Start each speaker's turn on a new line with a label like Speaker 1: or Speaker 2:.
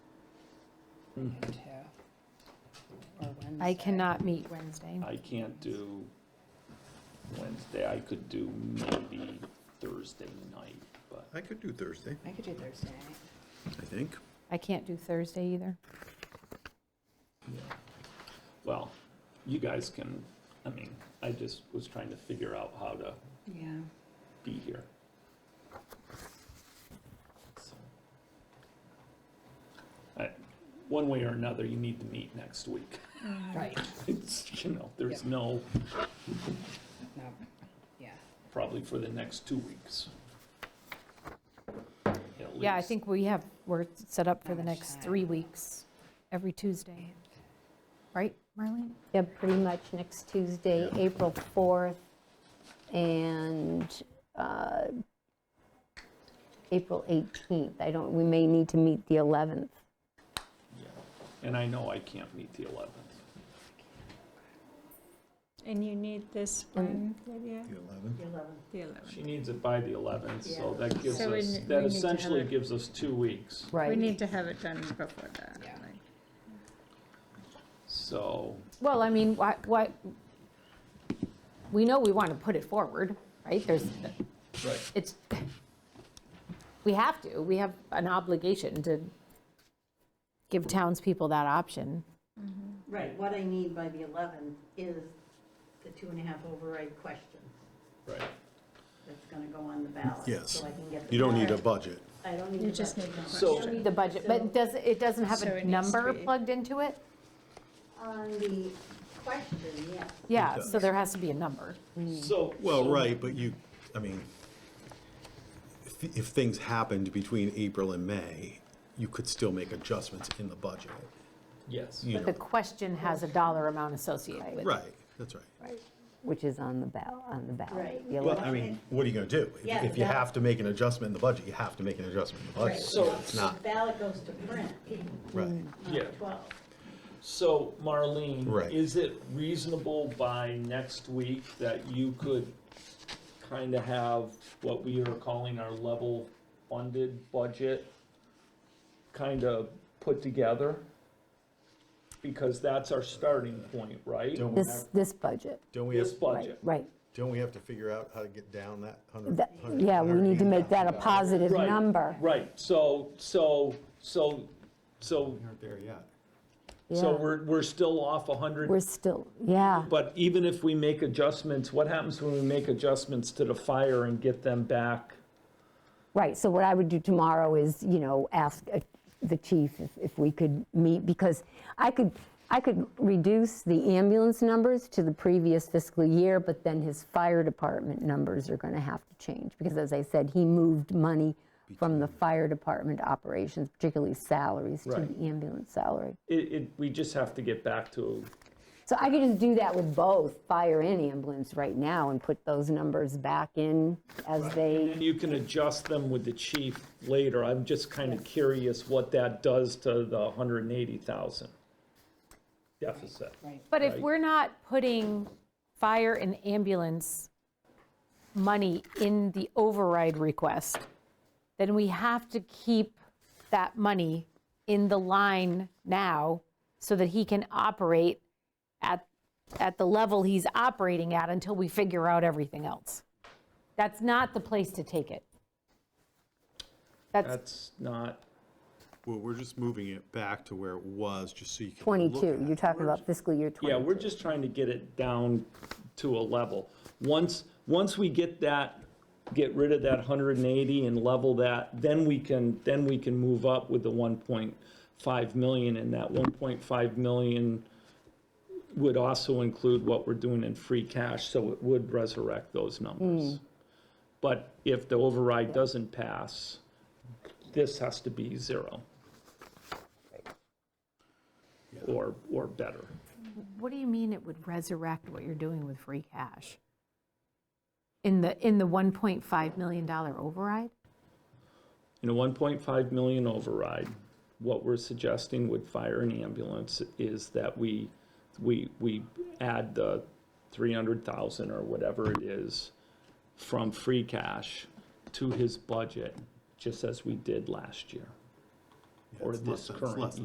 Speaker 1: noon to, or Wednesday.
Speaker 2: I cannot meet Wednesday.
Speaker 3: I can't do Wednesday, I could do maybe Thursday night, but
Speaker 4: I could do Thursday,
Speaker 1: I could do Thursday night.
Speaker 4: I think.
Speaker 2: I can't do Thursday either.
Speaker 3: Well, you guys can, I mean, I just was trying to figure out how to
Speaker 1: Yeah.
Speaker 3: be here. So, I- One way or another, you need to meet next week.
Speaker 1: Right,
Speaker 3: It's, you know, there's
Speaker 1: Yep.
Speaker 3: no,
Speaker 1: no, yeah.
Speaker 3: probably for the next two weeks. At
Speaker 2: Yeah, I
Speaker 3: least.
Speaker 2: think we have, we're set up for
Speaker 1: Not
Speaker 2: the
Speaker 1: much
Speaker 2: next
Speaker 1: time.
Speaker 2: three weeks, every Tuesday. Right, Marlene?
Speaker 5: Yeah, pretty much next Tuesday, April 4th, and uh, April 18th. I don't, we may need to meet the 11th.
Speaker 3: Yeah. And I know I can't meet the 11th.
Speaker 6: And you need this one, Lydia?
Speaker 4: The 11th.
Speaker 6: The 11th.
Speaker 3: She needs it by the 11th, so
Speaker 1: Yeah.
Speaker 3: that gives
Speaker 6: So we
Speaker 3: us,
Speaker 6: n- we need
Speaker 3: that
Speaker 6: to have
Speaker 3: essentially
Speaker 6: it-
Speaker 3: gives us two weeks.
Speaker 6: We need to have it done before that.
Speaker 1: Yeah.
Speaker 6: like-
Speaker 3: So,
Speaker 2: Well, I mean, why, why, we know we want to put it forward, right? There's,
Speaker 3: Right.
Speaker 2: it's, we have to, we have an obligation to give townspeople that option.
Speaker 7: Right, what I need by the 11th is the two and a half override question
Speaker 3: right.
Speaker 7: that's going to go on the ballot.
Speaker 4: Yes.
Speaker 7: So I can get the.
Speaker 4: You don't need
Speaker 7: ballot.
Speaker 4: a budget.
Speaker 7: I don't need.
Speaker 6: You
Speaker 7: the
Speaker 6: just need
Speaker 7: budget.
Speaker 6: the
Speaker 3: So-
Speaker 6: question.
Speaker 2: The budget, but does, it doesn't have
Speaker 6: So it
Speaker 2: a
Speaker 6: needs to
Speaker 2: number
Speaker 6: be-
Speaker 2: plugged into it?
Speaker 7: On the question, yes.
Speaker 2: Yeah,
Speaker 4: It
Speaker 2: so
Speaker 4: does.
Speaker 2: there has to be a number.
Speaker 6: Mm.
Speaker 3: So.
Speaker 4: Well,
Speaker 3: so-
Speaker 4: right, but you, I mean, if, if things happened between April and May, you could still make adjustments in the budget.
Speaker 3: Yes.
Speaker 4: You
Speaker 2: But the
Speaker 4: know,
Speaker 2: question has a dollar amount associated with it.
Speaker 4: right, that's right.
Speaker 5: Which is on the ballot, on the ballot.
Speaker 7: Right.
Speaker 5: the
Speaker 4: Well,
Speaker 5: 11th.
Speaker 4: I mean, what are you gonna do? If-
Speaker 7: Yeah,
Speaker 4: If you
Speaker 7: yeah.
Speaker 4: have to make an adjustment in the budget, you have to make an adjustment in the budget.
Speaker 7: Right. Mm.
Speaker 3: So-
Speaker 4: It's not,
Speaker 7: The ballot goes to print
Speaker 4: right.
Speaker 7: on the
Speaker 3: Yeah.
Speaker 7: 12th.
Speaker 3: So Marlene.
Speaker 4: Right.
Speaker 3: Is it reasonable by next week that you could kind of have what we are calling our level funded budget kind of put together? Because that's our starting point, right?
Speaker 4: Don't we
Speaker 5: This,
Speaker 4: have,
Speaker 5: this budget,
Speaker 4: don't we have,
Speaker 3: This budget.
Speaker 5: right.
Speaker 4: don't we have to figure out how to get down that hundred?
Speaker 5: That- Yeah, we need to make that a positive
Speaker 3: Right,
Speaker 5: number.
Speaker 3: Right, so, so, so, so,
Speaker 4: We aren't there yet.
Speaker 3: so
Speaker 5: Yeah.
Speaker 3: we're, we're still off a hundred
Speaker 5: We're still, yeah,
Speaker 3: But even if we make adjustments, what happens when we make adjustments to the fire and get them back?
Speaker 5: right. So what I would do tomorrow is, you know, ask uh, the chief if- if we could meet, because I could, I could reduce the ambulance numbers to the previous fiscal year, but then his fire department numbers are going to have to change, because as I said, he moved money from the fire department operations, particularly salaries, to
Speaker 3: Right.
Speaker 5: the ambulance salary.
Speaker 3: It, it, we just have to get back to,
Speaker 5: So I could just do that with both, fire and ambulance right now, and put those numbers back in as they,
Speaker 3: and you can adjust them with the chief later. I'm just kind of curious what that does to the hundred and eighty thousand deficit.
Speaker 2: But if
Speaker 3: Right.
Speaker 2: we're not putting fire and ambulance money in the override request, then we have to keep that money in the line now so that he can operate at, at the level he's operating at until we figure out everything else. That's not the place to take it. That's,
Speaker 3: That's not,
Speaker 4: Well, we're just moving it back to where it was, just so you can. look
Speaker 5: 22,
Speaker 4: at
Speaker 5: you're
Speaker 4: it.
Speaker 5: talking about fiscal year
Speaker 3: yeah,
Speaker 5: 22.
Speaker 3: we're just trying to get it down to a level. Once, once we get that, get rid of that hundred and eighty and level that, then we can, then we can move up with the one point five million, and that one point five million would also include what we're doing in free cash, so it would resurrect those numbers. But if the override doesn't pass, this has to be zero. Or, or better.
Speaker 2: what do you mean it would resurrect what you're doing with free cash? In the, in the $1.5 million override?
Speaker 3: In a 1.5 million override, what we're suggesting with fire and ambulance is that we, we, we add the 300,000 or whatever it is from free cash to his budget, just as we did last year.
Speaker 4: Yeah,
Speaker 3: Or
Speaker 4: it's less
Speaker 3: this
Speaker 4: than- it's
Speaker 3: current
Speaker 4: less